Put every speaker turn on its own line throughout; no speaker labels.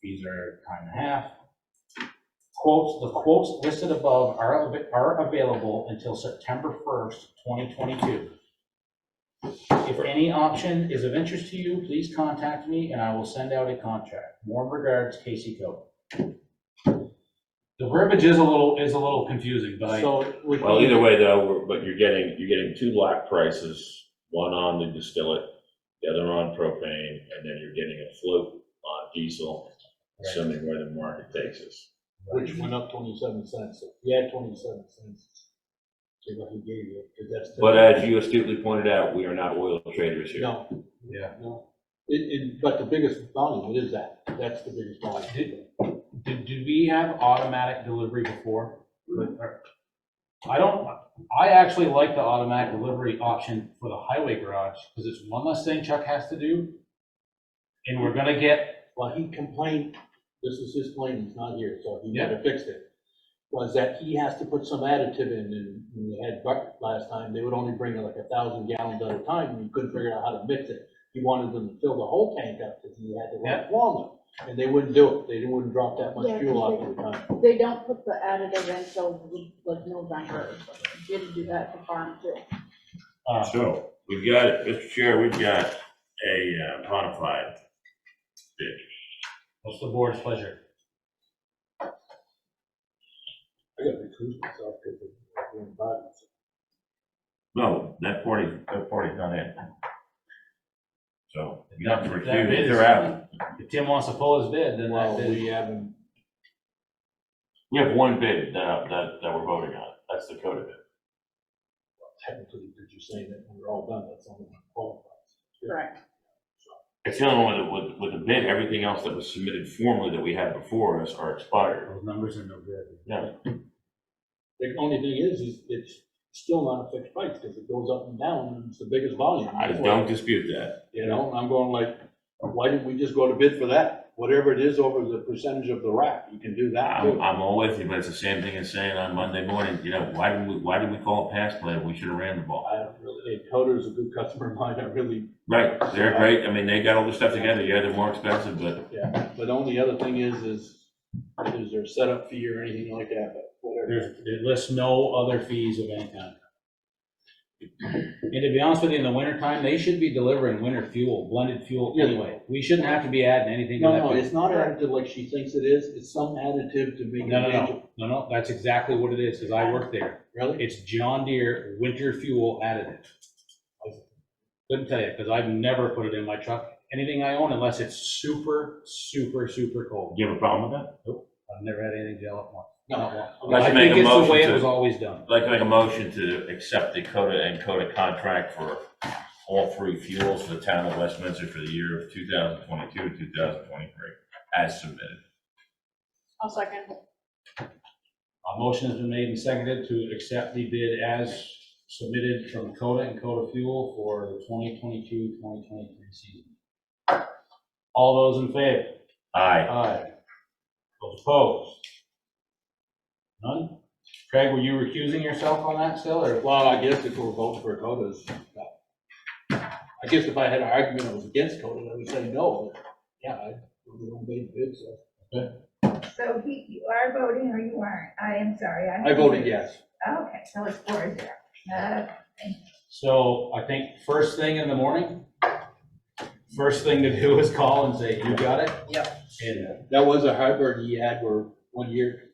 fees are time and a half. Quotes, the quotes listed above are, av- are available until September 1st, 2022. If any option is of interest to you, please contact me and I will send out a contract. Warm regards, Casey Coe. The verbiage is a little, is a little confusing, but I,
So it would
Well, either
be,
way though, we're- but you're getting, you're getting two lock prices, one on the distillate, the other on propane, and then you're getting a float on diesel, assuming where the market takes us.
which went up twenty-seven cents, so if you add twenty-seven cents to what he gave you, because that's. the-
But as you astutely pointed out, we are not oil traders here.
No,
yeah.
no, it, it, but the biggest volume, it is that, that's the biggest volume.
Did, did we have automatic delivery before?
Mm-hmm.
I don't, I actually like the automatic delivery option for the highway garage, because it's one less thing Chuck has to do. And we're gonna get,
Well, he complained, this is his claim, he's not here, so he never fixed it, was that he has to put some additive in, and when they had bucket last time, they would only bring like a thousand gallons at a time, and you couldn't figure out how to mix it. He wanted them to fill the whole tank up, because he had to run longer, and they wouldn't do it, they wouldn't drop that
Yeah,
much
'cause
fuel
they-
off at a time.
They don't put the additive in till like November, didn't do that for farm too.
uh,
So, we've got, Mr. Chair, we've got a uh, bona fide.
what's the board's pleasure?
I gotta recruit myself, because I'm doing bodies.
No, that party, that party's not in. So, you have to
That- that
refuse,
is-
they're out.
If Tim wants to pull his bid, then that
Well, we
bid,
haven't,
We have one bid that, that, that we're voting on, that's the code of it.
technically, because you're saying that when we're all done, that's only one qualifies.
Correct.
It's the only one that with, with the bid, everything else that was submitted formally that we had before us are expired.
those numbers are no good.
Yeah.
The only thing is, is it's still not a fixed price, because it goes up and down, and it's the biggest volume.
I don't dispute that.
You know, and I'm going like, why didn't we just go to bid for that? Whatever it is over the percentage of the rack, you can do that
I'm,
too.
I'm all with you, but it's the same thing as saying on Monday morning, you know, why did we, why did we call it pass play? We should have ran the ball.
I don't really, hey, Coder's a good customer of mine, I really,
Right, they're great. I mean, they got all the stuff together. Yeah, they're more expensive, but
yeah, but the only other thing is, is, is there a setup fee or anything like that, but whatever.
There's, it lists no other fees of any kind. And to be honest with you, in the wintertime, they should be delivering winter fuel, blended fuel anyway. We shouldn't have to be adding anything to
No,
that.
no,
bid.
it's not additive like she thinks it is, it's some additive to make it
No, no,
manageable.
no, no, no, that's exactly what it is, because I work there.
Really?
It's John Deere winter fuel additive. Couldn't tell you, because I've never put it in my truck, anything I own, unless it's super, super, super cold.
you have a problem with that?
I've never had anything gel up once.
No,
I'd like
I
to make
think
a
it's the
motion
way it
to-
was always done.
I'd like to make a motion to accept the Coda and Coda contract for all three fuels for the town of Westminster for the year of two thousand twenty-two, two thousand twenty-three, as submitted.
I'll second.
A motion has been made and seconded to accept the bid as submitted from Coda and Coda Fuel for the 2022, 2023 season. All those in favor?
Aye.
Aye. Those opposed? None? Craig, were you recusing yourself on that still, or?
well, I guess if we're voting for Coda's, no. I guess if I had an argument I was against Coda, I would say no, but, yeah, I, we don't pay the bid, so.
So he, you are voting or you aren't? I am sorry. I'm-
I voted yes.
Okay, so it's four zero. Uh,
So I think first thing in the morning, first thing to do is call and say, you got it? Yep. And
That was a heartburn he had where one year,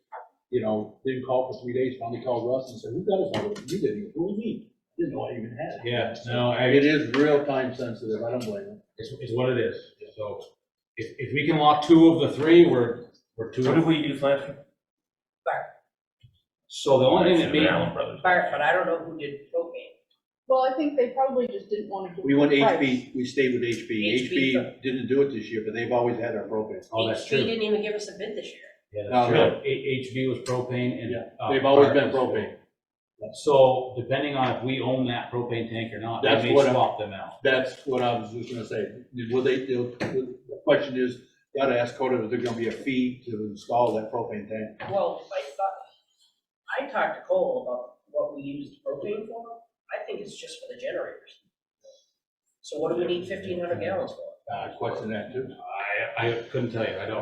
you know, didn't call for three days, finally called Russ and said, who got it? I said, You didn't, He goes, what do you mean? Didn't know I even had it.
yeah, no, I,
It is real time sensitive, I don't blame him.
it's, it's what it is. So if, if we can lock two of the three, we're, we're two.
What
of-
did we use last year?
So the only thing that
Should have been
being,
Allen Brothers.
Bart, but I don't know who did propane.
Well, I think they probably just didn't want to give.
We went
the price.
HB, we stayed with HB.
HB.
HB didn't do it this year, but they've always had our propane.
oh, that's
He
true.
didn't even give us a bid this year.
Yeah,
No,
that's true. H- HB was propane and.
Yeah,
uh,
They've always been
Bart was-
propane.
So depending on if we own that propane tank or not,
That's
they may
what I-
swap them out.
That's what I was just gonna say. Will they, they'll- the question is, gotta ask Coda, is there gonna be a fee to install that propane tank?
Well, I thought, I talked to Cole about what we used propane for. I think it's just for the generators. So what do we need fifteen hundred gallons for?
Uh, question that too.
I, I couldn't tell you, I don't